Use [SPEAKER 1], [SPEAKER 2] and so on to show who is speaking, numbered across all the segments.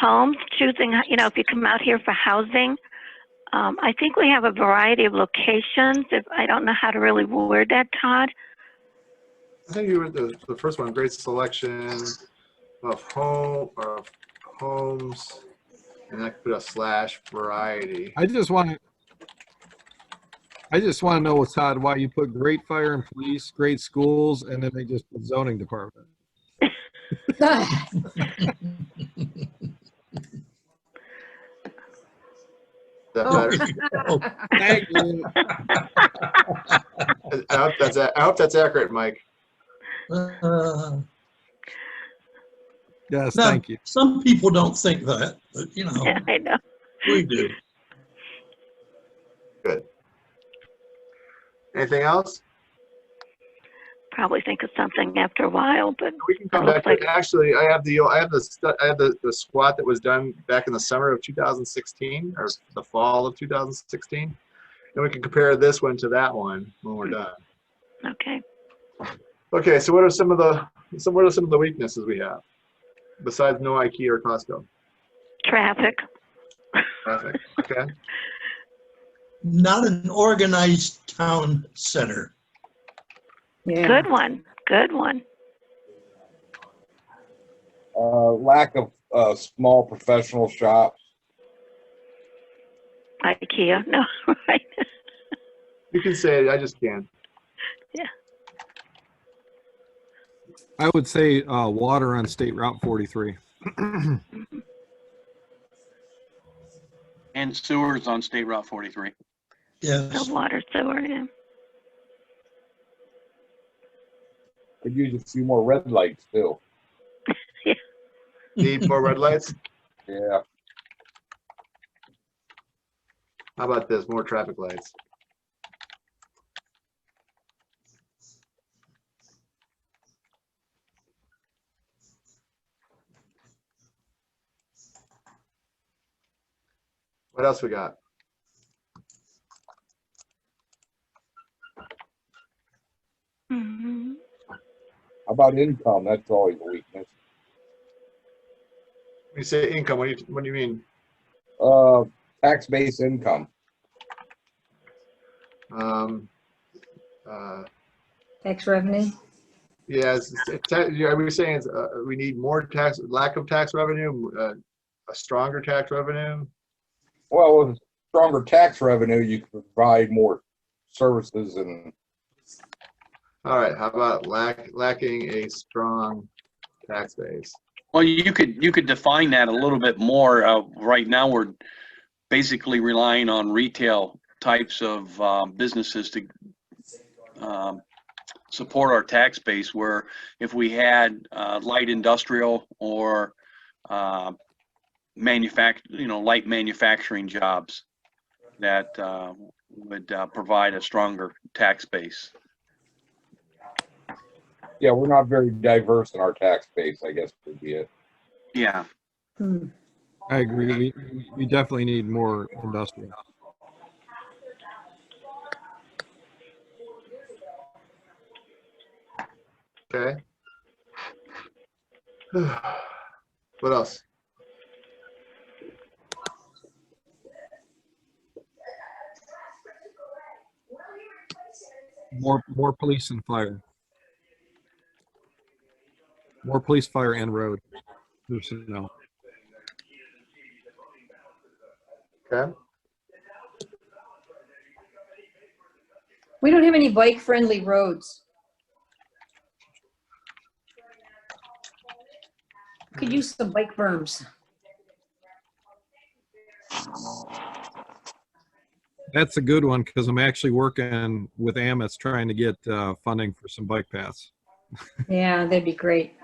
[SPEAKER 1] home, choosing, you know, if you come out here for housing. Um, I think we have a variety of locations. If, I don't know how to really word that, Todd.
[SPEAKER 2] I think you were the, the first one, great selection of home, of homes, and I put a slash variety.
[SPEAKER 3] I just want to, I just want to know, Todd, why you put great fire and police, great schools, and then they just put zoning department.
[SPEAKER 2] Is that
[SPEAKER 4] Oh.
[SPEAKER 2] better?
[SPEAKER 3] Thank you.
[SPEAKER 2] I hope that's, a- I hope that's accurate, Mike.
[SPEAKER 4] Uh,
[SPEAKER 3] Yes,
[SPEAKER 4] No.
[SPEAKER 3] thank you.
[SPEAKER 4] Some people don't think that, but you know,
[SPEAKER 1] I know.
[SPEAKER 4] we do.
[SPEAKER 2] Anything else?
[SPEAKER 1] Probably think of something after a while, but
[SPEAKER 2] We can come back to it. Actually, I have the, I have the, stu- I have the, the squat that was done back in the summer of 2016 or the fall of 2016. And we can compare this one to that one when we're done.
[SPEAKER 1] okay.
[SPEAKER 2] Okay, so what are some of the, so what are some of the weaknesses we have? Besides no IKEA or Costco
[SPEAKER 1] Traffic.
[SPEAKER 2] traffic, okay?
[SPEAKER 4] Not an organized town center.
[SPEAKER 5] Yeah.
[SPEAKER 1] Good one. Good one.
[SPEAKER 6] Uh, lack of, uh, small professional shops.
[SPEAKER 1] IKEA. No, right.
[SPEAKER 2] You can say it, I just can't.
[SPEAKER 3] I would say, uh, water on State Route forty-three.
[SPEAKER 7] And sewers on State Route 43.
[SPEAKER 1] The
[SPEAKER 4] Yes,
[SPEAKER 1] water sewer. Yeah.
[SPEAKER 6] Could use a few more red lights too.
[SPEAKER 2] Need more red lights?
[SPEAKER 6] Yeah,
[SPEAKER 2] How about this, more traffic lights? What else we got?
[SPEAKER 1] hmm
[SPEAKER 6] how about income? That's always a weakness.
[SPEAKER 2] When you say income, what do you, what do you mean?
[SPEAKER 6] Uh, tax-based income.
[SPEAKER 2] Um, uh,
[SPEAKER 5] Tax revenue.
[SPEAKER 2] Yeah, it's- it's ta- yeah, we were saying it's, uh, we need more tax, lack of tax revenue, uh, a stronger tax revenue?
[SPEAKER 6] Well, with stronger tax revenue, you can provide more services and
[SPEAKER 2] All right, how about lack, lacking a strong tax base?
[SPEAKER 7] Well, you could, you could define that a little bit more. Uh, right now, we're basically relying on retail types of, um, businesses to, um, support our tax base, where if we had, uh, light industrial or, uh, manufact, you know, light manufacturing jobs that, uh, would, uh, provide a stronger tax base.
[SPEAKER 6] Yeah, we're not very diverse in our tax base, I guess would be it.
[SPEAKER 7] Yeah.
[SPEAKER 5] Hmm.
[SPEAKER 3] I agree. We, we- we definitely need more industrial.
[SPEAKER 2] Okay. What else?
[SPEAKER 3] More, more police and fire. More police, fire, and road. Personnel.
[SPEAKER 2] Okay,
[SPEAKER 5] We don't have any bike-friendly roads. Could use some bike berms.
[SPEAKER 3] That's a good one because I'm actually working with Amis trying to get uh, funding for some bike paths.
[SPEAKER 5] Yeah, that'd be great.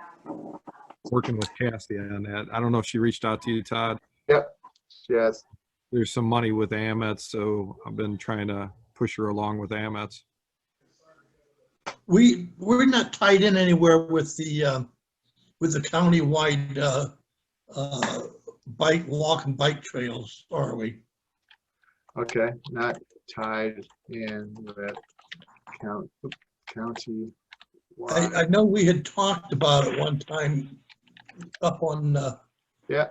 [SPEAKER 3] Working with Cassie on that. I don't know if she reached out to you, Todd.
[SPEAKER 2] yes,
[SPEAKER 3] There's some money with Amis, so I've been trying to push her along with Amis.
[SPEAKER 4] we, we're not tied in anywhere with the, uh, with the countywide uh, uh, bike, walk and bike trails, are we?
[SPEAKER 2] okay, not tied in with count, oop, county.
[SPEAKER 4] I, I know we had talked about it one time up on uh,
[SPEAKER 2] Yeah.